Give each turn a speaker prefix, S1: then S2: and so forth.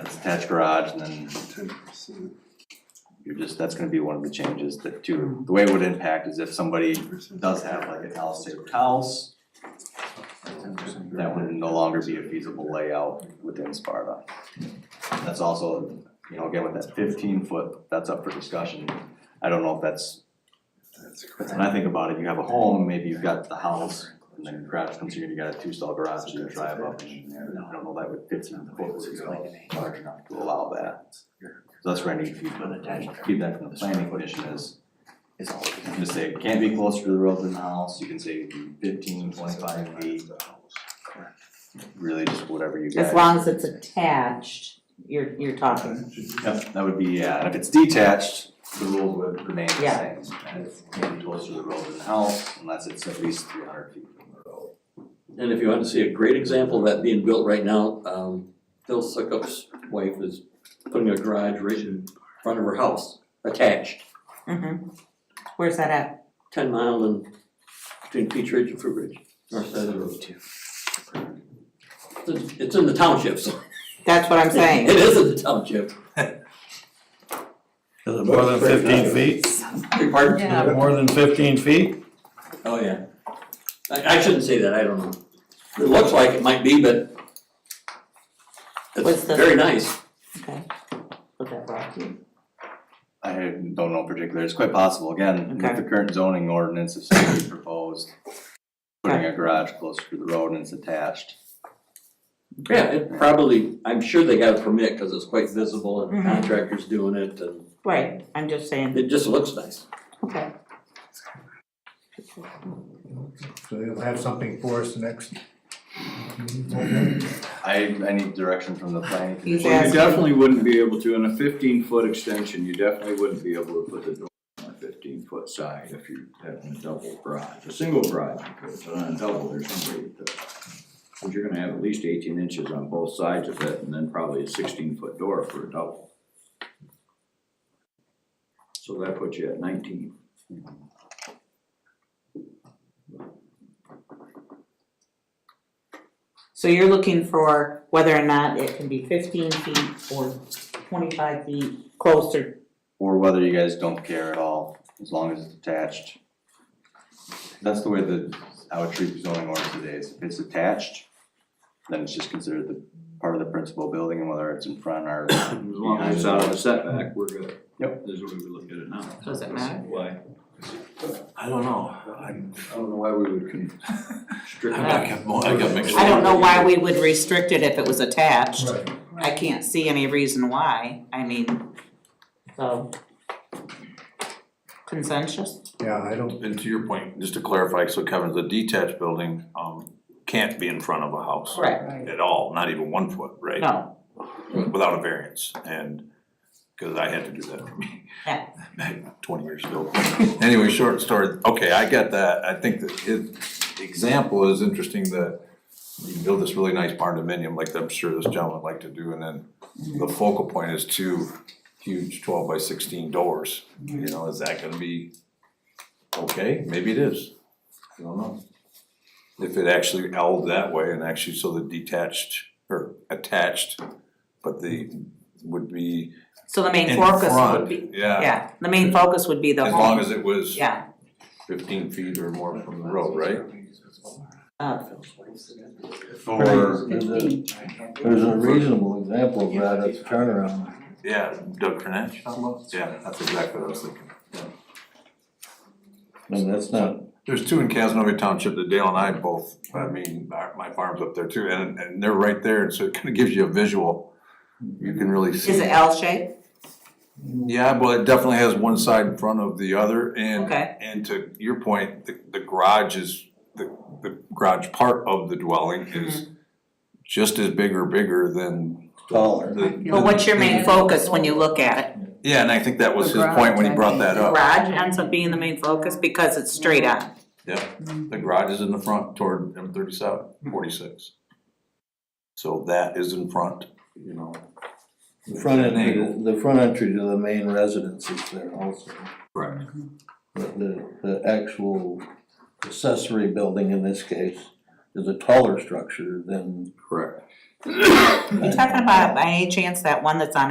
S1: attached garage, and then
S2: ten percent,
S1: you're just, that's gonna be one of the changes that to, the way it would impact is if somebody
S2: percent.
S1: does have like a tile shaped house, that would no longer be a feasible layout within Sparta. That's also, you know, again, with that fifteen foot, that's up for discussion. I don't know if that's,
S2: That's
S1: when I think about it, you have a home, maybe you've got the house, and then garage comes here, and you got a two stall garage, you drive up, and I don't know, that would fifteen foot would be large enough to allow that. So that's where I need feedback, feedback from the planning commission is,
S3: Is all.
S1: You can say it can't be closer to the road than the house, you can say fifteen, twenty-five feet, really just whatever you guys.
S4: As long as it's attached, you're, you're talking.
S1: Yep, that would be, yeah, and if it's detached, the rules would remain the
S4: Yeah.
S1: same, and it's can't be closer to the road than the house unless it's at least three hundred feet from the road.
S5: And if you want to see a great example of that being built right now, um, Phil Suckup's wife is putting a garage right in front of her house, attached,
S4: Mm-hmm. Where's that at?
S5: ten mile and between Peach Ridge and Fruit Ridge, north side of the road. It's- It's in the township, so
S4: That's what I'm
S5: it
S4: saying.
S5: is in the township.
S6: Is it more than fifteen feet?
S5: Beg pardon?
S6: Is it more than fifteen feet?
S5: Oh, yeah. I, I shouldn't say that, I don't know. It looks like it might be, but it's
S4: What's the-
S5: very nice.
S4: Put that back.
S1: I don't know in particular, it's quite possible, again, with
S4: Okay.
S1: the current zoning ordinance, if somebody proposed putting a garage closer to the road and it's attached,
S5: Yeah, it probably, I'm sure they got a permit because it's quite visible and
S4: Mhm.
S5: contractors doing it and
S4: Right, I'm just saying,
S5: it just looks nice.
S4: okay.
S7: So you'll have something for us next.
S1: I, I need direction from the planning
S4: He's
S1: commission.
S8: Well, you
S4: asking.
S8: definitely wouldn't be able to, in a fifteen foot extension, you definitely wouldn't be able to put the door on a fifteen foot side if you had a double garage. A single garage, you could, but on a double, there's no way to. But you're gonna have at least eighteen inches on both sides of it and then probably a sixteen foot door for a double. So that puts you at nineteen.
S4: So you're looking for whether or not it can be fifteen feet or twenty-five feet closer.
S1: or whether you guys don't care at all, as long as it's attached. That's the way that I would treat zoning ordinance today, is if it's attached, then it's just considered the part of the principal building, and whether it's in front or,
S8: As long as it's out of the setback, we're good.
S1: Yep.
S8: This is what we would look at it now.
S4: Does it matter?
S8: Why,
S6: I don't know, I'm,
S8: I don't know why we would constrict.
S6: I
S8: that.
S6: got, I got mixed.
S4: I don't know why we would restrict it if it was attached.
S7: Right.
S4: I can't see any reason why, I mean, so. Consensus?
S7: Yeah, I don't,
S6: And to your point, just to clarify, so Kevin, the detached building, um, can't be in front of a house.
S4: Correct,
S6: At all, not even one foot, right?
S4: no,
S6: Without a variance, and, cause I had to do that for me.
S4: Yeah.
S6: Back Twenty years ago. Anyway, short story, okay, I get that, I think that his example is interesting that you can build this really nice barn dominium like I'm sure this gentleman would like to do, and then the focal point is two huge twelve by sixteen doors. You know, is that gonna be okay? Maybe it is, I don't know. If it actually held that way and actually so the detached or attached, but the would be
S4: so the
S6: in
S4: main focus would be,
S6: front, yeah,
S4: yeah, the main focus would be the
S6: as long
S4: home,
S6: as it was
S4: yeah,
S6: fifteen feet or more from the road, right?
S4: uh,
S1: or
S4: fifteen,
S3: There's a reasonable example of that at the turnaround.
S6: Yeah, Doug French, yeah, that's exactly what I was thinking.
S3: And that's not,
S6: There's two in Casanova Township that Dale and I both, I mean, our- my farm's up there too, and, and they're right there, so it kind of gives you a visual. You can really see.
S4: is it L shape?
S6: Yeah, well, it definitely has one side in front of the other and,
S4: Okay.
S6: and to your point, the, the garage is, the, the garage part of the dwelling
S4: Mm-hmm.
S6: is just as big or bigger than
S3: taller.
S6: the.
S4: But what's your main focus when you look at it?
S6: Yeah, and I think that was
S9: The
S6: his point when he
S9: garage,
S6: brought
S9: I
S6: that
S4: The
S6: up.
S4: garage ends up being the main focus because it's straight on, Mm-hmm.
S6: The garage is in the front toward M thirty-seven, forty-six. So that is in front, you know.
S3: The front
S6: An angle.
S3: entry, the front entry to the main residence is there also.
S6: Right.
S3: But the, the actual accessory building in this case is a taller structure than
S6: Correct.
S4: You talking about by any chance that one that's on